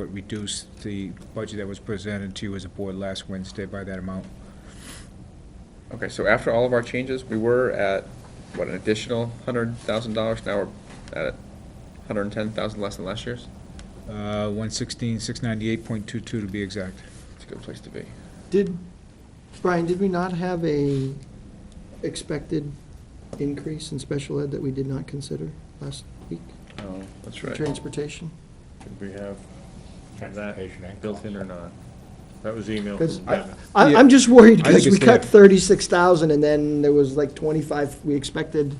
but reduce the budget that was presented to you as a board last Wednesday by that amount. Okay, so after all of our changes, we were at, what, an additional hundred thousand dollars, now we're at hundred and ten thousand less than last year's? Uh, 116, 698.22 to be exact. It's a good place to be. Did, Brian, did we not have a expected increase in special ed that we did not consider last week? Oh, that's right. Transportation? Did we have Transportation and that built in or not? That was email from 'Cause I, Devin. I- I'm just worried I think because we it's cut there. thirty-six thousand and then there was like twenty-five, we expected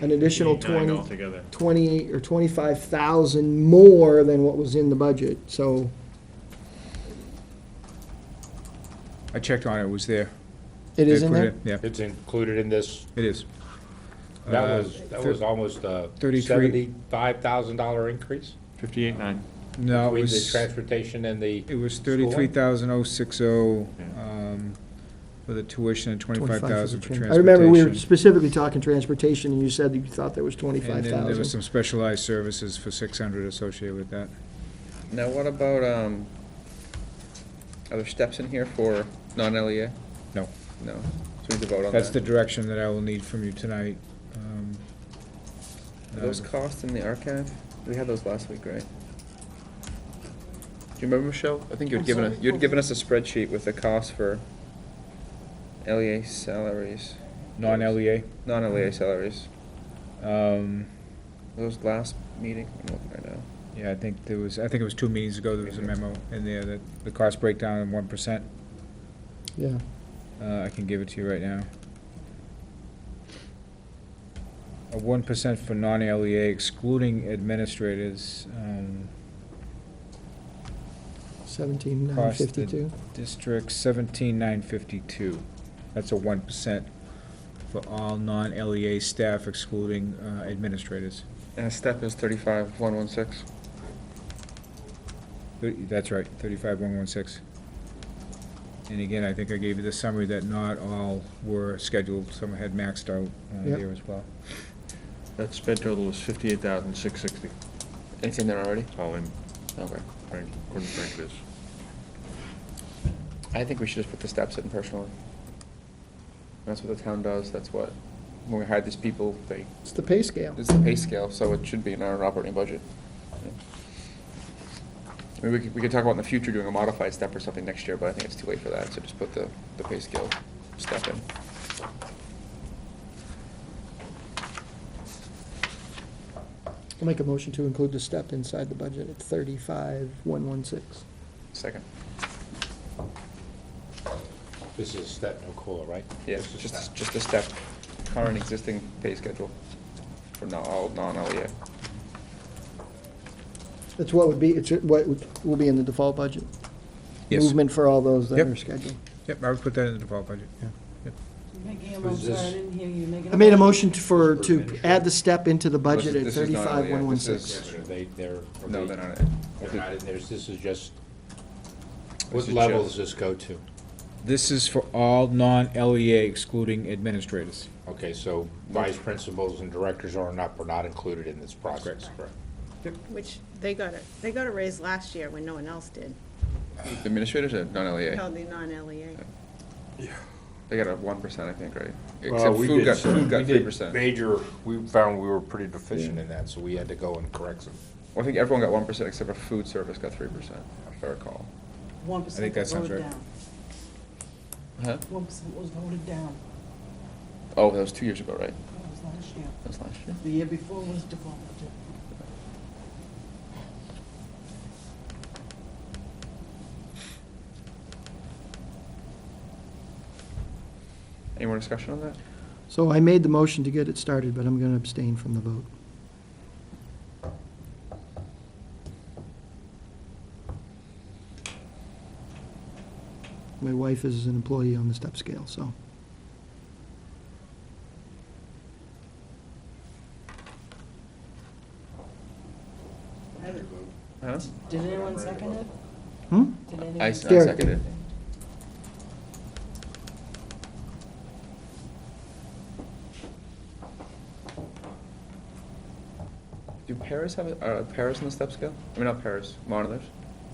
an additional Eight, nine twenty, Altogether. twenty or twenty-five thousand more than what was in the budget, so I checked on it, it was there. it is They in put there? Yeah, It's included in this, it is. that Uh, was, that thir- was almost a 33 seventy-five thousand dollar increase? Fifty-eight, nine. No, it Between the was, transportation and the, it was School? 33,060 Yeah. um, for the tuition and 25 for the 25,000 for tran- transportation. I remember we were specifically talking transportation and you said that you thought there was And twenty-five then there was thousand. some specialized services for 600 associated with that. Now, what about, um, are there steps in here for non-LEA? No. No, so we need to vote on that. That's the direction that I will need from you tonight. um, Are those uh, costs in the archive? We had those last week, right? Do you remember, Michelle? I think you had I'm given, us- sorry, you had what given us was a spreadsheet with the cost for LEA salaries, Non-LEA. non-LEA salaries. E Um, Those last meeting, I'm looking right now. Yeah, I think there was, I think it was two meetings ago, there was a memo in there that the cost breakdown in one percent. Yeah. Uh, I can give it to you right now. A one percent for non-LEA excluding administrators, um, Seventeen nine Cost the- fifty-two. district seventeen nine fifty-two. That's a one percent for all non-LEA staff excluding uh, administrators. And a Uh, step is thirty-five, one, one, six. Thirty- That's right, thirty-five one one six. And again, I think I gave you the summary that not all were scheduled, some had maxed out uh, Yep. there as well. That sped total was fifty-eight thousand, six sixty, It's in there already? all in, Okay. according according to Frank, this. I think we should just put the steps in personally. That's what the town does, that's what, when we hire these people, they, It's the pay scale. it's the pay scale, so it should be in our operating budget. I mean, we could, we could talk about in the future doing a modified step or something next year, but I think it's too late for that, so just put the, the pay scale step in. I'll make a motion to include the step inside the budget at thirty-five, one, one, six. Second, this is step no COLA, right? yeah, This is just, step. just a step, current existing pay schedule for not all E non-LEA. That's what would be, it's what would- will be in the default budget. Yes. Movement for all those that Yep. are scheduled. Yep, I would put that in the default budget, yeah. Making a motion, sorry, I didn't hear you making a motion. I made a motion to- for, to add the step into the budget at This is not thirty-five, one, really one, it. This six. is- Are They, they're. are No, they- they're not. They're not in theirs, this is just, This what is level just- does this go to? This is for all non-LEA excluding administrators. Okay, so vice principals and directors are not, are not included in this process, correct? Which, they got a, they got a raise last year when no one else did, Administrators are non-LEA. held the E non-LEA. They got a one percent, I think, right? Well, Except we food did got, some- food we got did three percent. Well, Major, we found we were pretty deficient in that, so we had to go and correct some. I think everyone got one percent except for food service got three percent, if I recall. One I think percent that was sounds voted right. down. Huh? One percent was voted down. Oh, that was two years ago, right? That was last year. That was last year. The year before was default. Any more discussion on that? So I made the motion to get it started, but I'm gonna abstain from the vote. My wife is an employee on the step scale, so. Huh? Did anyone second it? Hmm? Did I, I anyone? Derek. seconded it. Do paras have, a- are paras on the step scale? I mean, not paras, monitors?